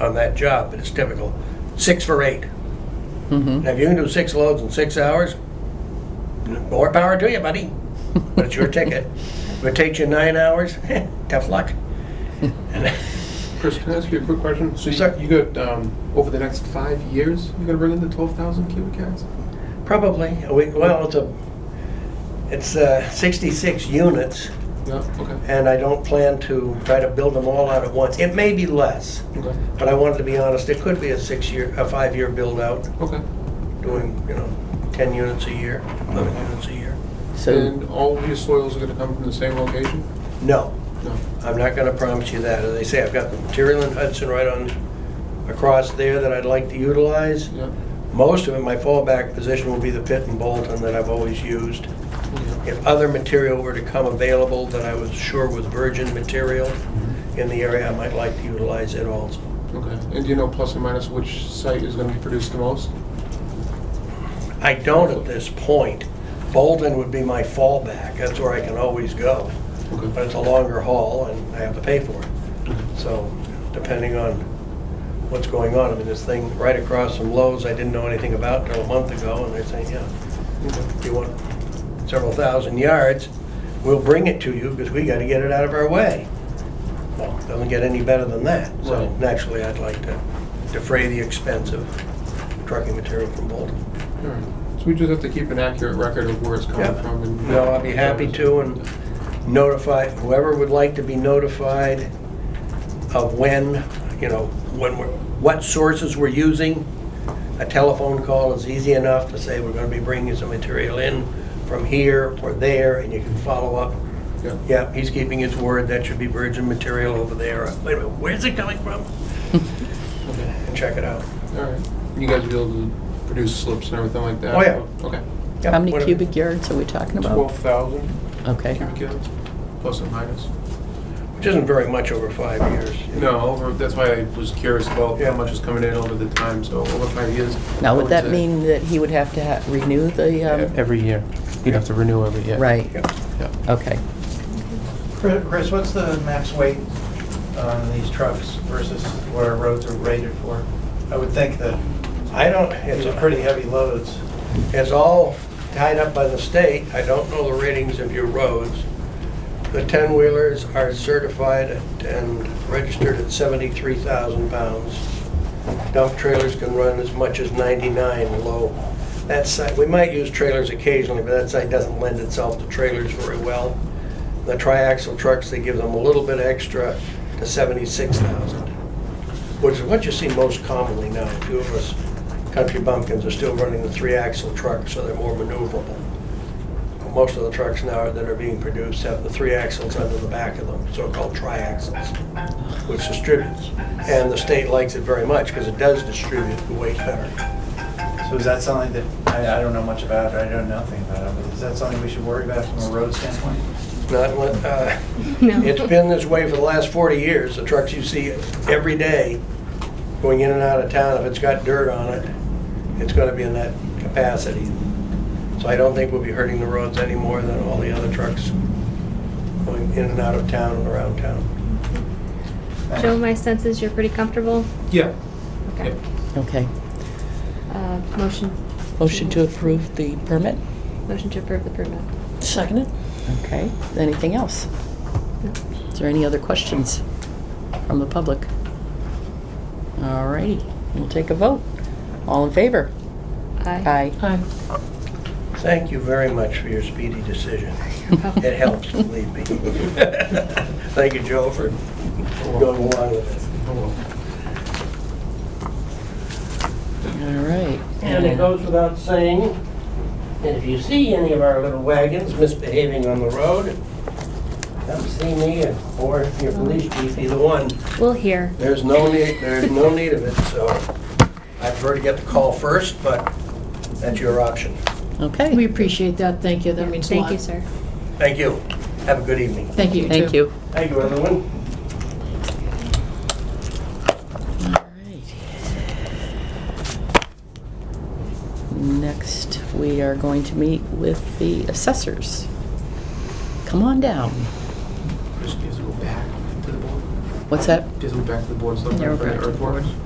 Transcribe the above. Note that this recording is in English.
on that job, but it's typical, six for eight. Now, if you can do six loads in six hours, more power to you, buddy, but it's your ticket. If it takes you nine hours, tough luck. Chris, can I ask you a quick question? So Sir. you, you got, um, over the next five years, you're gonna bring in the twelve thousand cubic yards? Probably, we, well, it's a, it's uh, 66 units, Yeah, okay, and I don't plan to try to build them all out at once. It may be less, okay, but I wanted to be honest, it could be a six-year, a five-year build-out, okay. doing, you know, 10 units a year, 11 units a year. So, And all of your soils are gonna come from the same location? No, No. I'm not gonna promise you that. As I say, I've got the material in Hudson right on, across there that I'd like to utilize. Yeah, Most of it, my fallback position will be the pit and Bolton that I've always used. okay, If other material were to come available that I was sure was virgin material in the area, I might like to utilize it also. okay. And do you know plus or minus which site is gonna produce the most? I don't at this point. Bolton would be my fallback. That's where I can always go. But Okay, it's a longer haul and I have to pay for it. So depending on what's going on, I mean, this thing right across from Lowe's, I didn't know anything about until a month ago, and they're saying, yeah, okay. if you want several thousand yards, we'll bring it to you because we got to get it out of our way. Well, doesn't get any better than that. So Right. naturally, I'd like to defray the expense of trucking material from Bolton. All right. So we just have to keep an accurate record of where it's coming Yeah. from and. No, I'd be happy to and notify, whoever would like to be notified of when, you know, when we're, what sources we're using. A telephone call is easy enough to say, we're gonna be bringing some material in from here or there, and you can follow up. Yeah. Yeah, he's keeping his word, that should be virgin material over there. Wait a minute, where's it coming from? Okay. And check it out. All right. You guys will be able to produce slips and everything like that? Oh, yeah. Okay. Yeah, how many whatever. cubic yards are we talking about? Twelve thousand Okay. cubic yards, plus or minus? Which isn't very much over five years. No, over, that's why I was curious about Yeah. how much is coming in over the time, so over five years. Now, I would that say- mean that he would have to ha- renew the, um, Every year. You'd have to renew every year. right, Yeah. Yeah. okay. Chris, Chris, what's the max weight on these trucks versus what our roads are rated for? I would think that I don't, it's these a are pretty pretty heavy loads. It's all tied up by the state. I don't know the ratings of your roads. The 10-wheelers are certified and registered at 73,000 pounds. Dump trailers can run as much as 99 low. That site, we might use trailers occasionally, but that site doesn't lend itself to trailers very well. The triaxle trucks, they give them a little bit extra to 76,000 which is what you see most commonly now. A few of us country bumpkins are still running the three-axle trucks, so they're more maneuverable. Most of the trucks now that are being produced have the three axles under the back of them, so-called tri-axles, which distributes. And the state likes it very much because it does distribute the weight better. So is that something that, I, I don't know much about, I don't know nothing about it, but is that something we should worry about from a road standpoint? Not, what, uh, it's been this way for the last 40 years. The trucks you see every day going in and out of town, if it's got dirt on it, it's gonna be in that capacity. So I don't think we'll be hurting the roads any more than all the other trucks going in and out of town and around town. Thanks. Joe, my sense is you're pretty comfortable? Yeah. Okay. Okay. Uh, Motion, Motion to approve the permit? motion to approve the permit. Seconded. Okay. Anything else? No. Is there any other questions from the public? All righty, we'll take a vote. All in favor? Aye. Aye. Aye. Thank you very much for your speedy decision. It helps, believe me. Thank you, Joe, for going along with it. Oh, well. All right. And it goes without saying, that if you see any of our little wagons misbehaving on the road, come see me and- or your police chief, either one. We'll hear. There's no need, there's no need of it, so I prefer to get the call first, but that's your option. We Okay. appreciate that, thank you, that means a lot. Thank you, sir. Thank you. Have a good evening. Thank you, Thank too. you. Thank you, everyone. All right. Next, we are going to meet with the assessors. Come on down. Chris needs to go back to the board. What's that? Just went back to the board, so Yeah, for we're the back to the board. earthworks.